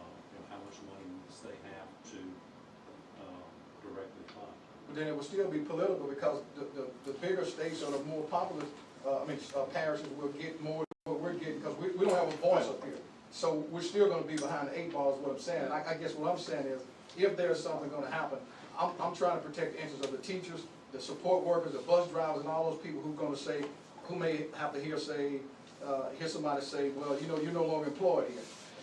uh, unless they have to um, directly fund. But then it would still be political because the, the, the bigger states or the more populous, uh, I mean, uh, parishes will get more than what we're getting, because we, we don't have a voice up here. So we're still gonna be behind the eight ball is what I'm saying. I, I guess what I'm saying is, if there's something gonna happen, I'm, I'm trying to protect the interests of the teachers, the support workers, the bus drivers, and all those people who gonna say, who may have to hear say, uh, hear somebody say, well, you know, you're no longer employed here.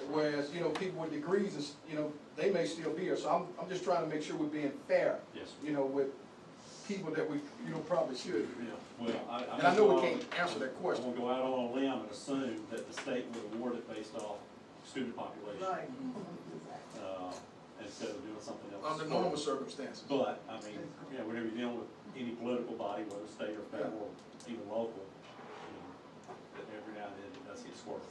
Whereas, you know, people with degrees, is, you know, they may still be here. So I'm, I'm just trying to make sure we're being fair Yes. you know, with people that we, you know, probably should. Yeah, well, I. And I know we won't go can't out- answer that question. I won't go out on a limb and assume that the state would award it based off student population, Right. uh, instead of doing something else. Under normal circumstances. But, I mean, you know, whenever you're dealing with any political body, whether state or federal, even local, you know, that every now and then it does get squirrely,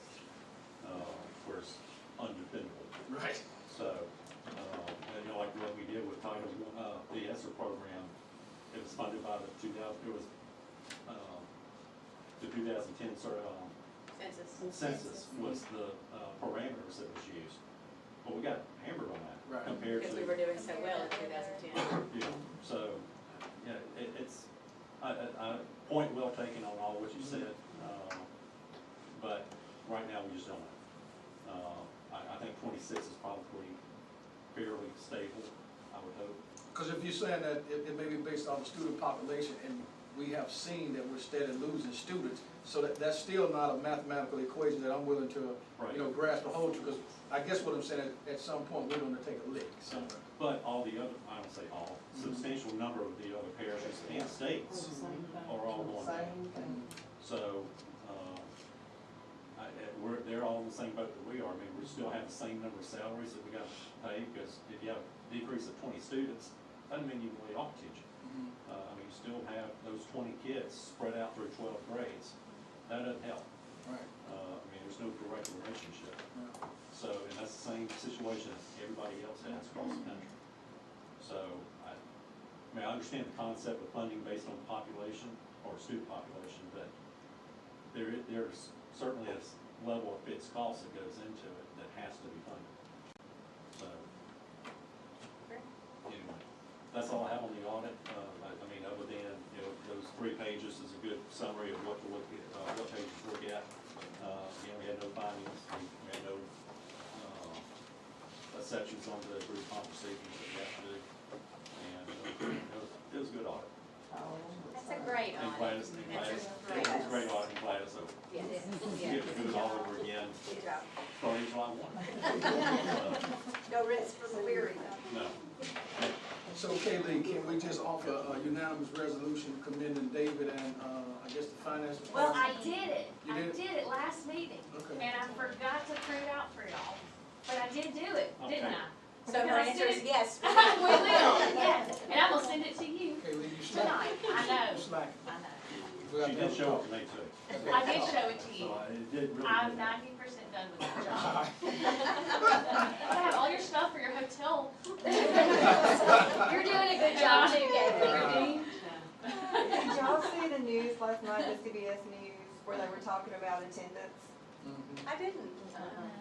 uh, where it's undefendable. Right. So, uh, and, you know, like what we did with Title, uh, the ESSER program, it was funded by the two thousand, it was, um, the two thousand ten sort of, um, Census. mm-hmm. census was the, uh, parameters that was used. But we got hammered on Right. that compared to. Because we were doing so well in two thousand ten. Yeah, so, yeah, it, it's, I, I, I, point well taken on all what you said, uh, but right now, we just don't know. Uh, I, I think twenty-six is probably fairly stable, I would hope. Because if you're saying that it, it may be based on the student population, and we have seen that we're steadily losing students, so that, that's still not a mathematical equation that I'm willing to, Right. you know, grasp a hold to, because I guess what I'm saying, at, at some point, we're gonna take a lick So, somewhere. but all the other, I don't say all, Mhm. substantial number of the other parishes and states Mm-hmm. are all going down. So, uh, I, I- we're, they're all in the same boat that we are, I mean, we still have the same number of salaries that we got to pay, because if you have a decrease of twenty students, doesn't mean you can lay off a teacher. Mhm. Uh, I mean, you still have those twenty kids spread out through twelve grades, that doesn't help, Right. uh, I mean, there's no direct relationship. Yeah. So, and that's the same situation as everybody else has across the country. So, I, I mean, I understand the concept of funding based on population or student population, but there, i- there's certainly a s- level of fixed cost that goes into it that has to be funded. So, anyway, that's all I have on the audit. Uh, I, I mean, other than, you know, those three pages is a good summary of what to look at, uh, what pages to look at. Uh, again, we had no findings, we we had no, uh, exceptions on the group comp procedures that we have to do. And uh, it was, it was a good audit. That's a great And glad audit. it's, and glad it's, That's it a great. was a great audit, and glad it's over. Yes, We yes. get to do it all over again, Good job. starting July one. Uh, No rest for the weary. No, So, Kaylee, can we just offer a unanimous resolution commending David and, uh, I guess the finance department? Well, I did it, You I did? did it last meeting, and Okay. I forgot to print it out for y'all, but I did do it, didn't Okay. I? So my answer is yes. We will, yes, and I'm gonna send it to you Kaylee, you tonight, slack. I You know, slack. I know. We got she to did have a show talk. up to me too, I did show it to you. so I- it did really. I'm good. ninety percent done with that job. I have all your stuff for your hotel. You're doing a good job too, Gabriel. Your dean. Did y'all see the news last night, the CBS News, where they were talking about attendance? Mhm. I didn't.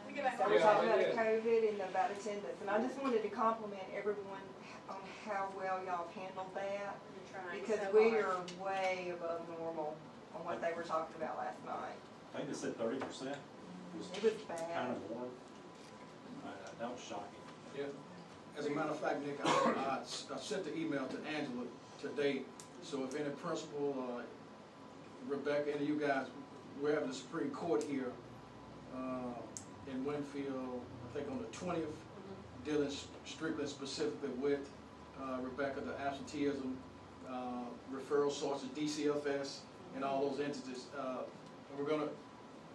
We get back So on we're Yeah, talking about yeah. COVID and about attendance, and I just wanted to compliment everyone on how well y'all have handled that, because we are way above normal on what they were talking about last night. I think they said thirty percent was It was kind bad. of warm. I- I- That was shocking. Yeah. As a matter of fact, Nick, I, I s- I sent the email to Angela today, so if any principal, uh, Rebecca, any of you guys, we're having the Supreme Court here, uh, in Winfield, I think on the twentieth, Mm-hmm. dealing s- strictly specifically with, uh, Rebecca, the absenteeism, uh, referral sources, DCFS, and all those entities, uh, and we're gonna,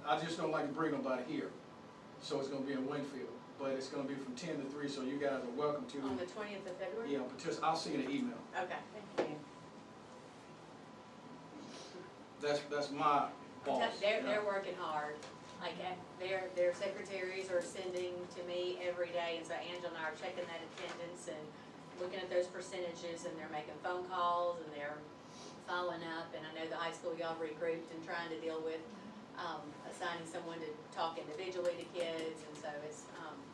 I just don't like to bring nobody here, so it's gonna be in Winfield, but it's gonna be from ten to three, so you guys are welcome to. On the twentieth of February? Yeah, partic I'll see you in the email. Okay. That's, that's my boss. They're, yeah. they're working hard. Like, uh, their, their secretaries are sending to me every day, and so Angela and I are checking that attendance and looking at those percentages, and they're making phone calls, and they're following up, and I know the high school y'all regrouped and trying to deal with, um, assigning someone to talk individually to kids, and so it's, um,